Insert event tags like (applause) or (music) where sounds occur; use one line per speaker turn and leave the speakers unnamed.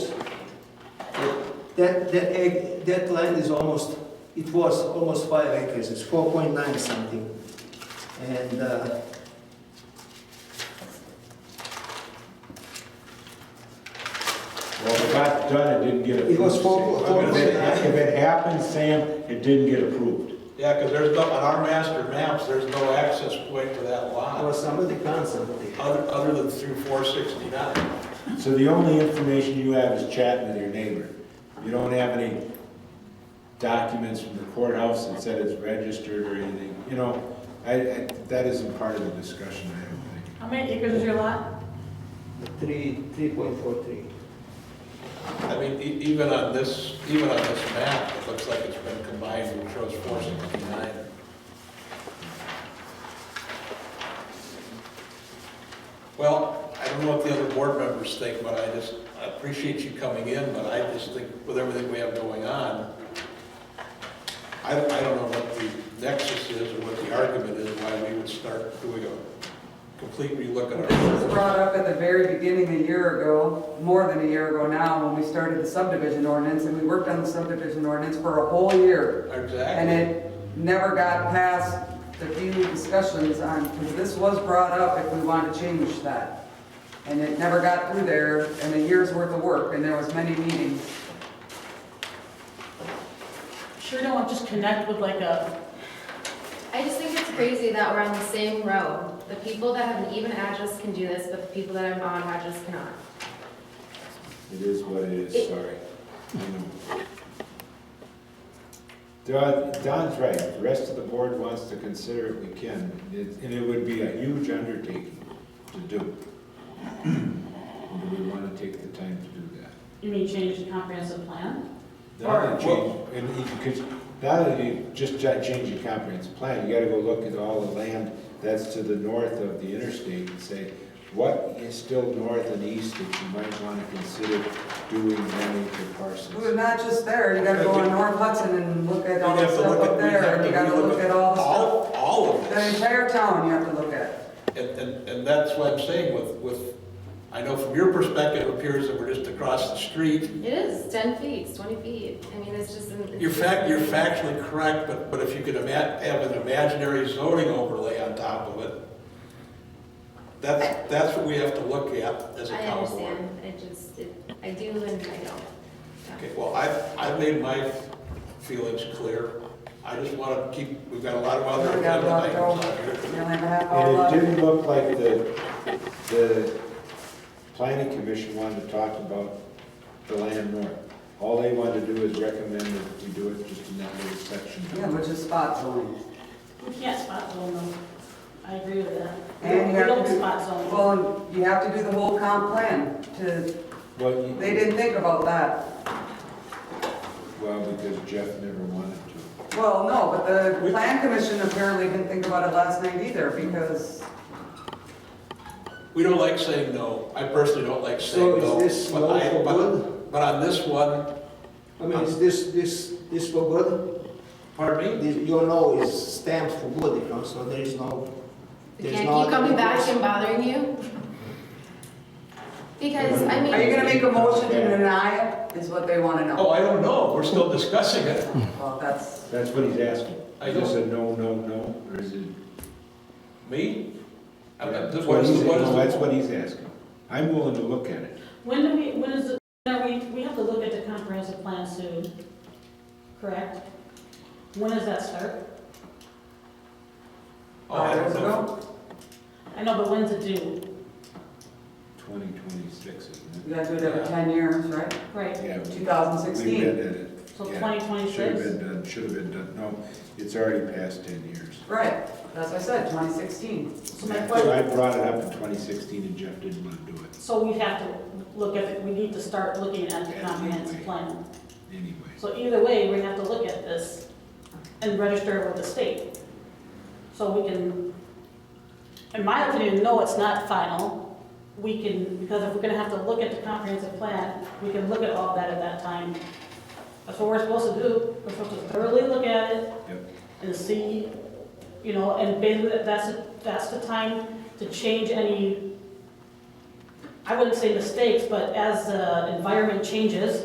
That, that, egg, that land is almost, it was almost five acres, it's four point nine something. And, uh,
Well, if I done, it didn't get approved.
It was four-
Sam.
four-
If it- if it happened, Sam, it didn't get approved.
Yeah, because there's no, on our master maps, there's no access point for that
or
lot,
somebody found something.
other, other than through four sixty-nine.
So the only information you have is chatting with your neighbor. You don't have any documents from the courthouse that said it's registered or anything, you know? I, I, that isn't part of the discussion, I don't think.
How many acres is your lot?
Three, three point four three.
I mean, e- even on this, even on this map, it looks like it's been combined, it shows four sixty-nine. Well, I don't know what the other board members think, but I just, I appreciate you coming in, but I just think with everything we have going on, I, I don't know what the nexus is or what the argument is why we would start doing a complete relook at
This was
our.
brought up at the very beginning a year ago, more than a year ago now, when we started the subdivision ordinance, and we worked on the subdivision ordinance for a whole year. And
Exactly.
it never got past the few discussions on, because this was brought up if we wanted to change that. And it never got through there, and a year's worth of work, and there was many meetings.
Sure don't just connect with like a,
I just think it's crazy that we're on the same road. The people that have an even address can do this, but the people that have an odd address cannot.
It is what it is, sorry. Don, Don's right, If the rest of the board wants to consider it, we can, It- and it would be a huge undertaking to do. (clears throat) And Do we wanna take the time to do that?
you mean change the comprehensive plan?
Now that change, and you could, now that you just cha- change your comprehensive plan, you gotta go look at all the land that's to the north of the interstate and say, what is still north and east that you might wanna consider doing land for
Well,
parcels?
not just there, you gotta go on North Hudson and look at
We'd
all the
have to
stuff
look at-
up
we'd have
there, and
to
you gotta look at all the stuff.
All of
The
this.
entire town you have to look at.
And, and, and that's what I'm saying with, with, I know from your perspective, it appears that we're just across the street.
It is ten feet, it's twenty feet. I mean, it's just. an- it's
You're
just-
fact, you're factually correct, but, but if you could ima- have an imaginary zoning overlay on top of it, that's, that's what we have to look at as a
I
town board.
understand, I just, it- I do and I don't. Yeah.
Okay, well, I've, I've made my feelings clear. I just want to keep, we've got a lot of other
We got a
agenda
lot to go.
items on here.
You only have a half hour
And it
left.
didn't look like the, the planning commission wanted to talk about the land north. All they wanted to do is recommend that we do it just in that little section.
Yeah, which is spot zoning.
We can't spot zone them. I agree with that.
And
We
you have
don't
to do-
spot zone. them.
Well, and you have to do the whole comp plan to,
Well, you-
they didn't think about that.
Well, because Jeff never wanted to.
Well, no, but the plan commission apparently didn't think about it last night either because
We don't like saying no. I personally don't like
So
saying
is
no.
this
but
law
I-
for
but-
good?
But on this one,
I mean, is this, this, this for good?
pardon me?
This- Your no is stamped for good, you know, so there is no,
They
there's
can't
no.
keep coming back and bothering you? Because, I
are you
mean,
gonna make a motion to deny it is what they want to
Oh,
know.
I don't know. We're still discussing it.
Well, that's,
That's what he's asking.
I
Is this a no, no, no, or is it?
Me? I- I-
That's
What is,
he's-
what
no, That's
is,
what he's asking. I'm willing to look at it.
When do we, when is, it- when are we, we have to look at the comprehensive plan soon, correct? When does that start?
oh, I
five
don't
years
know.
ago,
I know, but when's it due?
Twenty twenty-six, isn't
you gotta do it every ten years, right?
Right,
it? Yeah. we-
Two thousand
We read
sixteen,
at it.
so
Yeah. Should
twenty
have been
twenty-six?
done, should have been done. No, it's already past ten years.
right, that's what I said, twenty sixteen.
So my
So I
question,
brought it up in twenty sixteen and Jeff didn't want to do it
so we have to look at, it. we need to start looking at the comprehensive plan.
anyway.
So either way, we have to look at this and register with the state. So we can, in my opinion, no, it's not final. We can, because if we're gonna have to look at the comprehensive plan, we can look at all that at that time. That's what we're supposed to do. We're supposed to thoroughly look at it
Yep.
and see, you know, and basically, that's, that's the time to change any, I wouldn't say mistakes, but as the environment changes,